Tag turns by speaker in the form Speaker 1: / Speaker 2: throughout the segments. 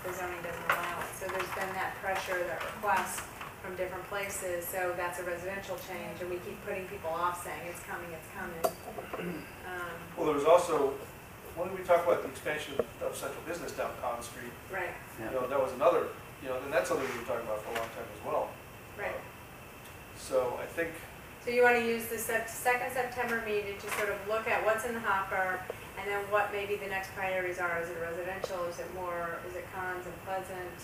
Speaker 1: the zoning doesn't allow it. So there's been that pressure, that request from different places, so that's a residential change, and we keep putting people off saying, it's coming, it's coming. Um,
Speaker 2: Well, there was also, when we talk about the expansion of central business down Common Street,
Speaker 1: Right,
Speaker 2: you know, that was another, you know, and that's something we were talking about for a long time as well.
Speaker 1: right.
Speaker 2: So I think,
Speaker 1: So you want to use the sep- second September meeting to sort of look at what's in the hopper and then what maybe the next priorities are. Is it residential, is it more, is it cons and pleasant?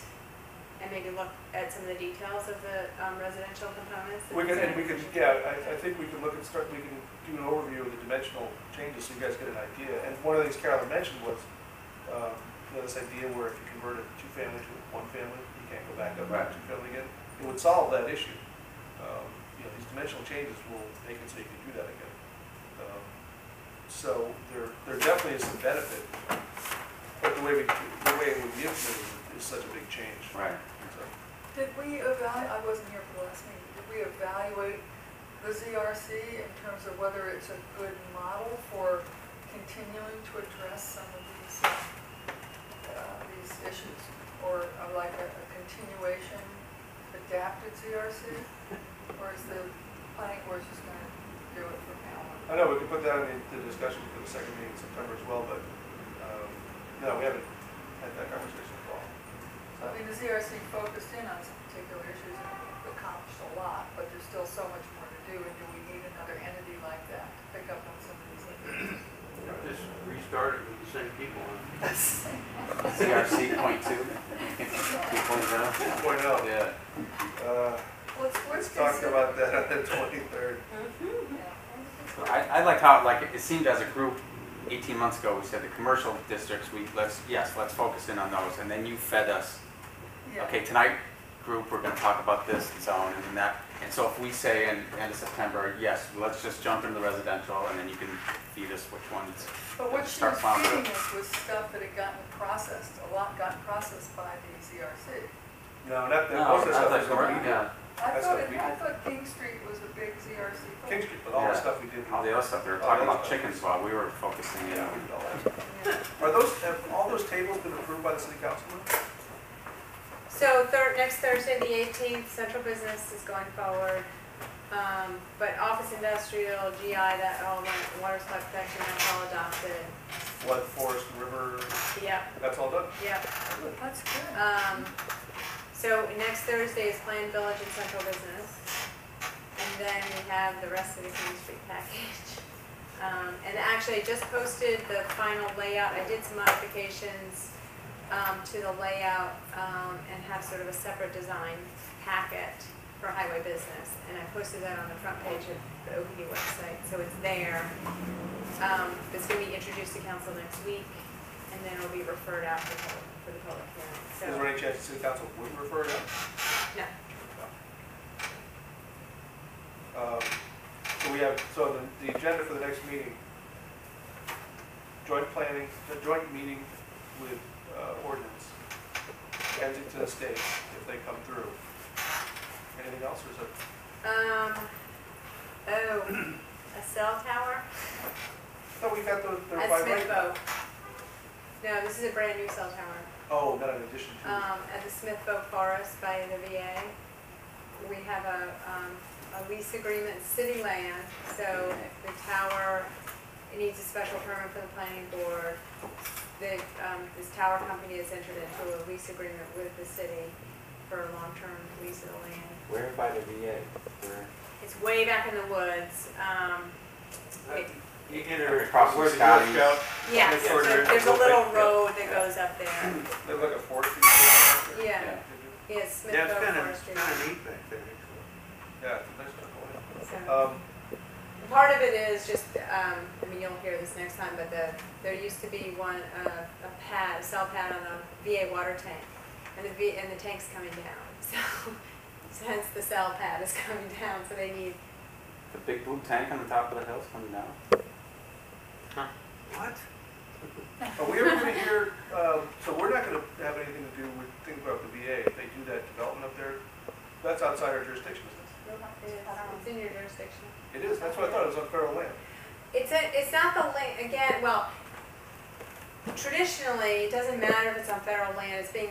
Speaker 1: And maybe look at some of the details of the um, residential components.
Speaker 2: we can, and we can, yeah, I, I think we can look and start, we can do an overview of the dimensional changes so you guys get an idea. And one of the things Carolyn mentioned was, um, you know, this idea where if you convert a two-family to a one-family, you can't go back up
Speaker 3: Right.
Speaker 2: to two-family again. It would solve that issue. Um, You know, these dimensional changes will make it so you can do that again. Um, So there, there definitely is some benefit, but the way we, the way it would be implemented is such a big change.
Speaker 3: Right.
Speaker 2: So,
Speaker 4: Did we evaluate, I wasn't here for the last meeting, did we evaluate the ZRC in terms of whether it's a good model for continuing to address some of these, uh, uh, these issues? Or uh, like a a continuation adapted ZRC? Or is the planning board just gonna do it from now on?
Speaker 2: I know, we can put that in the discussion for the second meeting in September as well, but, um, no, we haven't had that conversation at all.
Speaker 4: I mean, the ZRC focused in on some particular issues and accomplished a lot, but there's still so much more to do, and do we need another entity like that to pick up on some of these things?
Speaker 5: Just restart it with the same people.
Speaker 3: CRC point two? Two point zero?
Speaker 2: Point out,
Speaker 3: Yeah.
Speaker 2: uh,
Speaker 4: Let's,
Speaker 2: let's
Speaker 4: let's
Speaker 2: talk
Speaker 4: consider.
Speaker 2: about that on the twenty-third.
Speaker 3: I, I liked how, like, it seemed as a group, eighteen months ago, we said the commercial districts, we, let's, yes, let's focus in on those, and then you fed us,
Speaker 4: Yeah.
Speaker 3: okay, tonight, group, we're gonna talk about this zone and that, and so if we say in, end of September, yes, let's just jump into residential, and then you can feed us which ones.
Speaker 4: But what she
Speaker 3: Start
Speaker 4: was
Speaker 3: farming.
Speaker 4: feeding us was stuff that had gotten processed, a lot got processed by the ZRC.
Speaker 2: No, not, that
Speaker 3: No,
Speaker 2: most of the
Speaker 3: I
Speaker 2: stuff
Speaker 3: thought
Speaker 2: is
Speaker 3: you were-
Speaker 2: already,
Speaker 3: yeah,
Speaker 4: I
Speaker 2: That's
Speaker 4: thought,
Speaker 2: what
Speaker 4: it-
Speaker 2: we
Speaker 4: I
Speaker 2: did.
Speaker 4: thought King Street was a big ZRC
Speaker 2: King
Speaker 4: focus.
Speaker 2: Street, but all the
Speaker 3: Yeah.
Speaker 2: stuff we did.
Speaker 3: all the other stuff, they were talking about chickens while we were focusing in.
Speaker 2: Yeah, we did all that.
Speaker 4: Yeah.
Speaker 2: Are those, have all those tables been approved by the city council?
Speaker 1: So thir- next Thursday, the 18th, central business is going forward. Um, But office industrial, GI, that all went, water supply protection, that's all adopted.
Speaker 2: Flood, forest, river,
Speaker 1: Yep,
Speaker 2: that's all done?
Speaker 1: yep.
Speaker 4: That's good.
Speaker 1: Um, so next Thursday is Plan Village and Central Business. And then we have the rest of the King Street package. Um, and actually, I just posted the final layout. I did some modifications, um, to the layout, um, and have sort of a separate design packet for highway business. And I posted that on the front page of the OPD website, so it's there. Um, it's gonna be introduced to council next week, and then it'll be referred out for public, for the public
Speaker 2: Is
Speaker 1: hearing, so.
Speaker 2: there any chance the city council would refer it
Speaker 1: No.
Speaker 2: out? Um, So we have, so the, the agenda for the next meeting, joint planning, the joint meeting with uh, ordinance, Kensington Estates, if they come through. Anything else, or is it?
Speaker 1: Um, oh, a cell tower
Speaker 2: No, we got the, the
Speaker 1: at
Speaker 2: five
Speaker 1: Smith
Speaker 2: right-
Speaker 1: Boat. No, this is a brand new cell tower,
Speaker 2: Oh, not in addition to,
Speaker 1: um, at the Smith Boat Forest by the VA. We have a, um, a lease agreement, city land, so the tower, it needs a special permit from the planning board. The, um, this tower company has entered into a lease agreement with the city for a long-term lease of the land.
Speaker 5: Where by the VA? Where?
Speaker 1: It's way back in the woods, um, it-
Speaker 5: You enter
Speaker 3: Across
Speaker 5: across
Speaker 3: from
Speaker 5: where the Girl
Speaker 3: Scotty's.
Speaker 5: Scout.
Speaker 1: Yeah,
Speaker 5: Yes.
Speaker 1: so there- there's a little road that goes up there.
Speaker 2: they look at forestry.
Speaker 1: Yeah,
Speaker 2: Yeah,
Speaker 1: yeah,
Speaker 5: Yeah, it's
Speaker 1: Smithville
Speaker 5: kind
Speaker 1: Forestry.
Speaker 5: of, kind of neat back there. actually.
Speaker 2: Yeah, it's a nice one.
Speaker 1: So,
Speaker 2: Um,
Speaker 1: Part of it is just, um, I mean, you'll hear this next time, but the, there used to be one, uh, a pad, a cell pad on a VA water tank. And the V, and the tank's coming down, so, so hence the cell pad is coming down, so they need,
Speaker 3: The big blue tank on the top of the hill's coming down.
Speaker 5: What?
Speaker 2: Are we ever gonna hear, um, so we're not gonna have anything to do with, think about the VA, if they do that development up there, that's outside our jurisdiction, isn't
Speaker 1: it's in your jurisdiction.
Speaker 2: it? It is, that's what I thought, it was on federal land.
Speaker 1: It's a, it's not the land, again, well, traditionally, it doesn't matter if it's on federal land, it's being